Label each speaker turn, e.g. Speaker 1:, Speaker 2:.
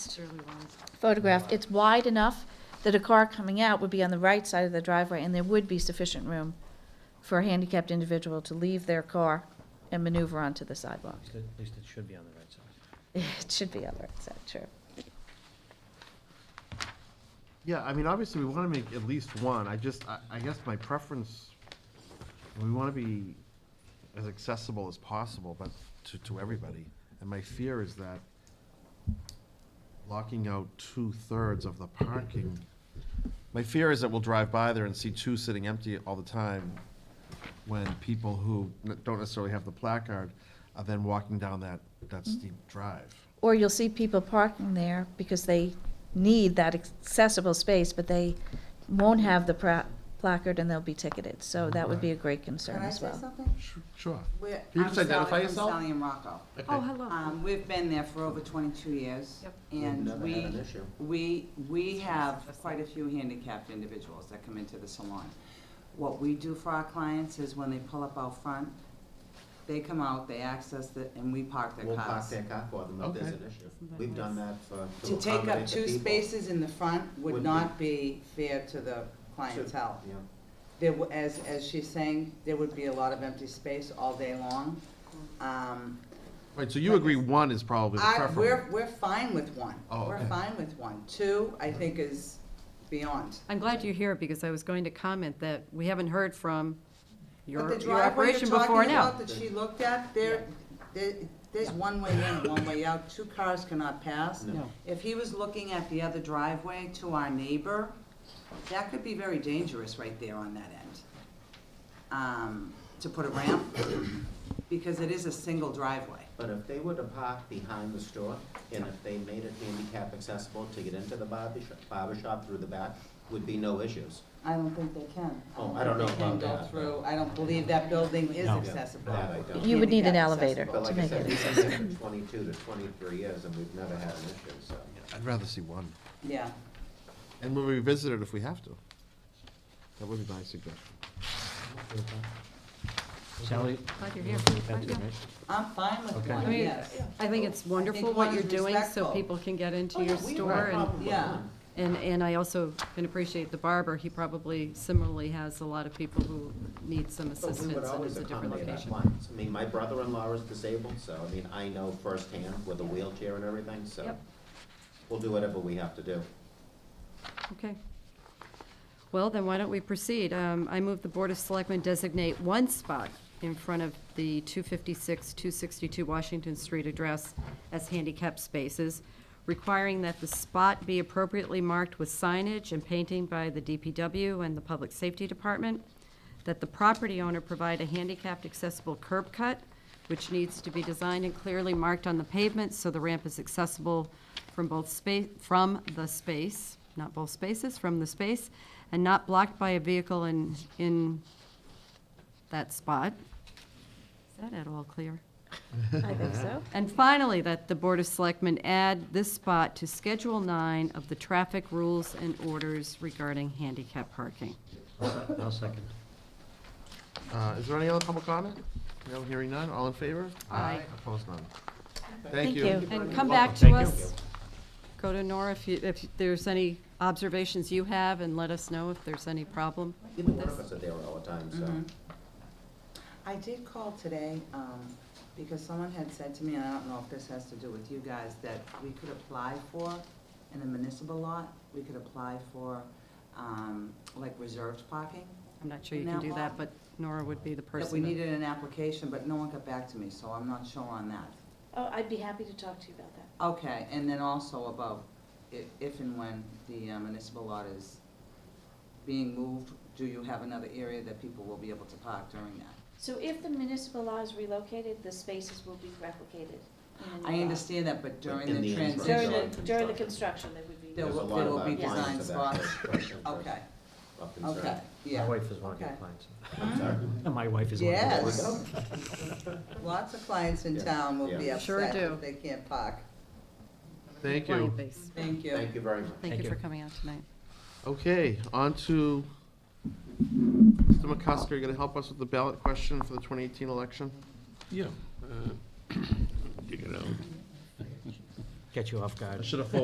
Speaker 1: necessarily want.
Speaker 2: photographed, it's wide enough that a car coming out would be on the right side of the driveway, and there would be sufficient room for a handicapped individual to leave their car and maneuver onto the sidewalk.
Speaker 3: At least it- at least it should be on the right side.
Speaker 2: It should be on the right side, true.
Speaker 4: Yeah, I mean, obviously, we want to make at least one. I just, I, I guess my preference, we want to be as accessible as possible, but to, to everybody. And my fear is that locking out two-thirds of the parking, my fear is that we'll drive by there and see two sitting empty all the time when people who n- don't necessarily have the placard are then walking down that, that
Speaker 5: Mm-hmm.
Speaker 4: steep drive.
Speaker 2: Or you'll see people parking there because they need that accessible space, but they won't have the pra- placard and they'll be ticketed, so that would be a great concern
Speaker 5: Can I
Speaker 2: as
Speaker 5: say
Speaker 2: well.
Speaker 5: something?
Speaker 4: Sure.
Speaker 5: We're-
Speaker 4: Can you
Speaker 5: I'm
Speaker 4: just identify
Speaker 5: Sally-
Speaker 4: yourself?
Speaker 5: I'm Sally and Rocco.
Speaker 1: Oh, hello.
Speaker 5: Um, We've been there for over 22 years.
Speaker 1: Yep.
Speaker 5: And
Speaker 6: never had an
Speaker 5: we,
Speaker 6: issue.
Speaker 5: we, we have quite a few handicapped individuals that come into the salon. What we do for our clients is when they pull up out front, they come out, they access the, and we park their
Speaker 6: We'll park
Speaker 5: cars.
Speaker 6: their car for them if there's
Speaker 4: Okay.
Speaker 6: an issue. We've done that for, to
Speaker 5: To take up
Speaker 6: accommodate the
Speaker 5: two
Speaker 6: people.
Speaker 5: spaces in the front would
Speaker 6: Would
Speaker 5: not be fair to the clientele.
Speaker 6: Yeah.
Speaker 5: There, wa- as, as she's saying, there would be a lot of empty space all day long. Um,
Speaker 4: Right, so you agree one is probably the
Speaker 5: I,
Speaker 4: preference?
Speaker 5: we're, we're fine with one.
Speaker 4: Oh,
Speaker 5: We're
Speaker 4: okay.
Speaker 5: fine with one. Two, I think is beyond.
Speaker 1: I'm glad you're here because I was going to comment that we haven't heard from your,
Speaker 5: But the
Speaker 1: your
Speaker 5: driveway you're
Speaker 1: operation before
Speaker 5: talking
Speaker 1: now.
Speaker 5: about that she looked at, there, there, there's one way in, one way out, two cars cannot pass.
Speaker 6: No.
Speaker 5: If he was looking at the other driveway to our neighbor, that could be very dangerous right there on that end. Um, to put a ramp, because it is a single driveway.
Speaker 6: But if they were to park behind the store, and if they made it handicap accessible to get into the barber shop, barber shop through the back, would be no issues.
Speaker 5: I don't think they can.
Speaker 6: Oh, I don't know
Speaker 5: They can
Speaker 6: about
Speaker 5: go
Speaker 6: that.
Speaker 5: through, I don't believe that building is
Speaker 6: No.
Speaker 5: accessible.
Speaker 6: That I don't.
Speaker 2: You would need an
Speaker 5: Handicap
Speaker 2: elevator
Speaker 5: accessible.
Speaker 2: to
Speaker 6: But like I
Speaker 2: make
Speaker 6: said,
Speaker 2: it
Speaker 6: we've
Speaker 2: accessible.
Speaker 6: been there for twenty-two to twenty-three years, and we've never had an issue, so.
Speaker 4: I'd rather see one.
Speaker 5: Yeah.
Speaker 4: And we'll revisit it if we have to. That would be my suggestion.
Speaker 3: Sally?
Speaker 1: Glad you're here.
Speaker 3: That's it,
Speaker 1: Yeah.
Speaker 3: right?
Speaker 5: I'm fine with
Speaker 3: Okay.
Speaker 1: I
Speaker 5: one,
Speaker 1: mean,
Speaker 5: yes.
Speaker 1: I think it's wonderful
Speaker 5: think
Speaker 1: what
Speaker 5: one
Speaker 1: you're
Speaker 5: is
Speaker 1: doing so
Speaker 5: respectful. Oh,
Speaker 1: people can get into your store and,
Speaker 5: Yeah.
Speaker 1: and, and I also can appreciate the barber. He probably similarly has a lot of people who need some
Speaker 6: But we would
Speaker 1: assistance and
Speaker 6: always
Speaker 1: it's a different
Speaker 6: accommodate our
Speaker 1: location.
Speaker 6: clients. I mean, my brother-in-law is disabled, so, I mean, I know firsthand with a wheelchair and everything, so.
Speaker 1: Yep.
Speaker 6: We'll do whatever we have to do.
Speaker 1: Okay. Well, then why don't we proceed? Um, I move the Board of Selectmen designate one spot in front of the 256, 262 Washington Street address as handicap spaces, requiring that the spot be appropriately marked with signage and painting by the DPW and the Public Safety Department, that the property owner provide a handicapped accessible curb cut, which needs to be designed and clearly marked on the pavement so the ramp is accessible from both space, from the space, not both spaces, from the space, and not blocked by a vehicle in, in that spot. Is that at all clear?
Speaker 2: I think so.
Speaker 1: And finally, that the Board of Selectmen add this spot to Schedule 9 of the traffic rules and orders regarding handicap parking.
Speaker 3: I'll second.
Speaker 4: Uh, is there any other public comment? No, hearing none, all in favor?
Speaker 1: Aye.
Speaker 4: Opposed, none.
Speaker 2: Thank
Speaker 4: Thank you.
Speaker 2: you.
Speaker 1: And come back to
Speaker 3: Thank you.
Speaker 1: us. Go to Nora if you, if there's any observations you have, and let us know if there's any problem.
Speaker 6: Even one of us are there all the time,
Speaker 5: Mm-hmm.
Speaker 6: so.
Speaker 5: I did call today, um, because someone had said to me, and I don't know if this has to do with you guys, that we could apply for, in a municipal lot, we could apply for, um, like reserved parking.
Speaker 1: I'm not sure you can do that, but Nora would be the person.
Speaker 5: That we needed an application, but no one got back to me, so I'm not sure on that.
Speaker 2: Oh, I'd be happy to talk to you about that.
Speaker 5: Okay, and then also about i- if and when the uh, municipal lot is being moved, do you have another area that people will be able to park during that?
Speaker 2: So if the municipal law is relocated, the spaces will be replicated in the new
Speaker 5: I
Speaker 2: law.
Speaker 5: understand that, but during the
Speaker 6: In the interim.
Speaker 2: During
Speaker 5: transition,
Speaker 2: the, during the construction, they would be.
Speaker 5: There
Speaker 6: There's a
Speaker 5: will-
Speaker 6: lot
Speaker 5: there
Speaker 6: of uh,
Speaker 5: will
Speaker 6: our
Speaker 5: be
Speaker 6: clients
Speaker 5: design spots.
Speaker 6: have access questions or
Speaker 5: okay,
Speaker 6: of concern.
Speaker 5: okay, Mm-hmm.
Speaker 3: My
Speaker 5: yeah.
Speaker 3: wife is one of your
Speaker 5: Okay.
Speaker 3: clients.
Speaker 6: I'm sorry.
Speaker 3: My wife is one of your clients.
Speaker 5: Yes. Lots of clients in
Speaker 6: Yeah,
Speaker 5: town will be
Speaker 6: yeah.
Speaker 1: Sure
Speaker 5: upset
Speaker 1: do.
Speaker 5: if they can't park.
Speaker 4: Thank you.
Speaker 1: Client base.
Speaker 5: Thank you.
Speaker 6: Thank you very much.
Speaker 1: Thank
Speaker 3: Thank
Speaker 1: you for
Speaker 3: you.
Speaker 1: coming out tonight.
Speaker 4: Okay, on to Mr. McCusker, you gonna help us with the ballot question for the twenty eighteen election?
Speaker 7: Yeah. uh, Dig it out.
Speaker 3: Get you off guard.
Speaker 4: have